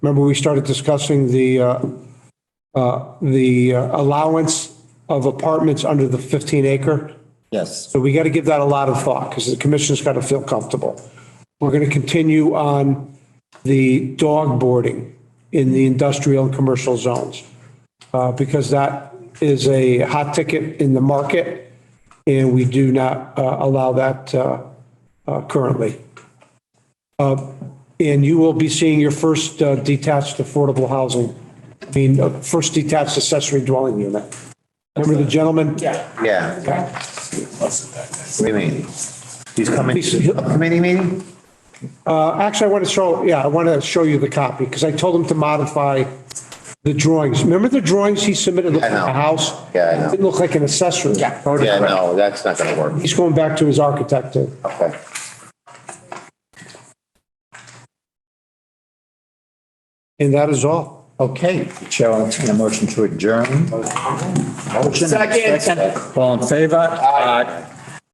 Remember, we started discussing the, uh, uh, the uh, allowance of apartments under the 15 acre? Yes, So we got to give that a lot of thought because the commission's got to feel comfortable. We're going to continue on the dog boarding in the industrial and commercial zones uh, because that is a hot ticket in the market and we do not uh, allow that uh, uh, currently. Uh, And you will be seeing your first uh, detached affordable housing, I mean, uh, first detached accessory dwelling unit. Remember the gentleman? Yeah. yeah. What do you mean? He's coming to the committee meeting? Actually, I want to show, yeah, I want to show you the copy because I told him to modify the drawings. Remember the drawings he submitted looked like I know. a house? Yeah, I know. Didn't look like an accessory. Yeah, no, that's not gonna work. He's going back to his architect too. Okay. And that is all. Okay, Chair, I'll entertain a motion to adjourn. Motion. Second. All in favor? Aye.